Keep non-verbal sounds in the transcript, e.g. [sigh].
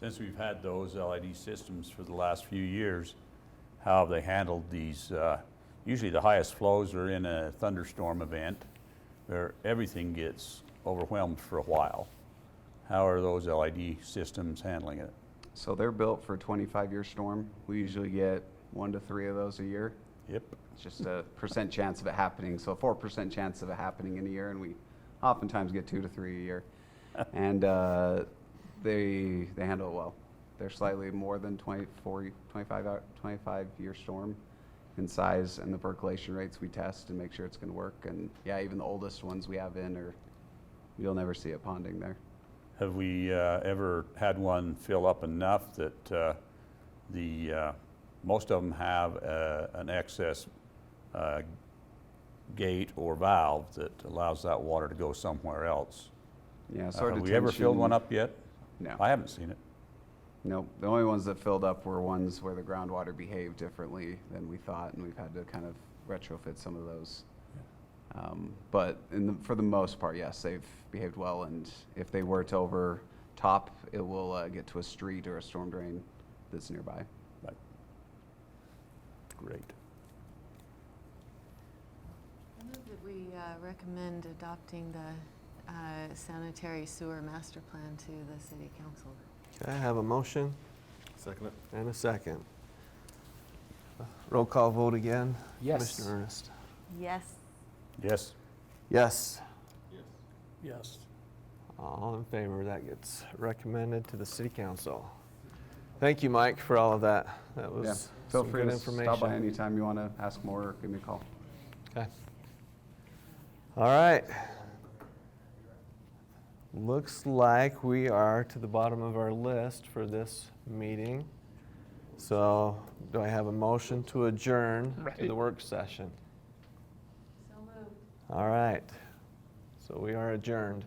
since we've had those LED systems for the last few years, how have they handled these? uh, Usually the highest flows are in a thunderstorm event where everything gets overwhelmed for a while. How are those LED systems handling it? So they're built for a 25-year storm. We usually get one to three of those a year. Yep, It's just a percent chance of it happening. So a four percent chance of it happening in a year, and we oftentimes get two to three [laughs] a year. and uh, they they handle it well. They're slightly more than 24, 25, hour, 25 year storm in size, and the percolation rates we test and make sure it's going to work. And yeah, even the oldest ones we have in are you'll never see it ponding there. Have we uh, ever had one fill up enough that uh, the, uh, most of them have uh, an excess uh, gate or valve that allows that water to go somewhere else? Yeah, Uh, so our Have we ever filled one detention- up yet? No. I haven't seen it. Nope. The only ones that filled up were ones where the groundwater behaved differently than we thought, and we've had to kind of retrofit some of those. Um, but in the, for the most part, yes, they've behaved well, and if they were to overtop, it will uh, get to a street or a storm drain that's nearby. Right. Great. I move that we uh, recommend adopting the uh, sanitary sewer master plan to the city council. Okay, I have a motion Second it. and a second. Roll call vote again. Yes. Commissioner Ernest. Yes. Yes, Yes. Yes. All in favor, that gets recommended to the city council. Thank you, Mike, for all of that. That Yeah. was Feel some free good to information. stop by anytime you want to ask more or give me a call. Okay. All right. Looks like we are to the bottom of our list for this meeting. So do I have a motion to adjourn to the work session? So moved. All right. So we are adjourned.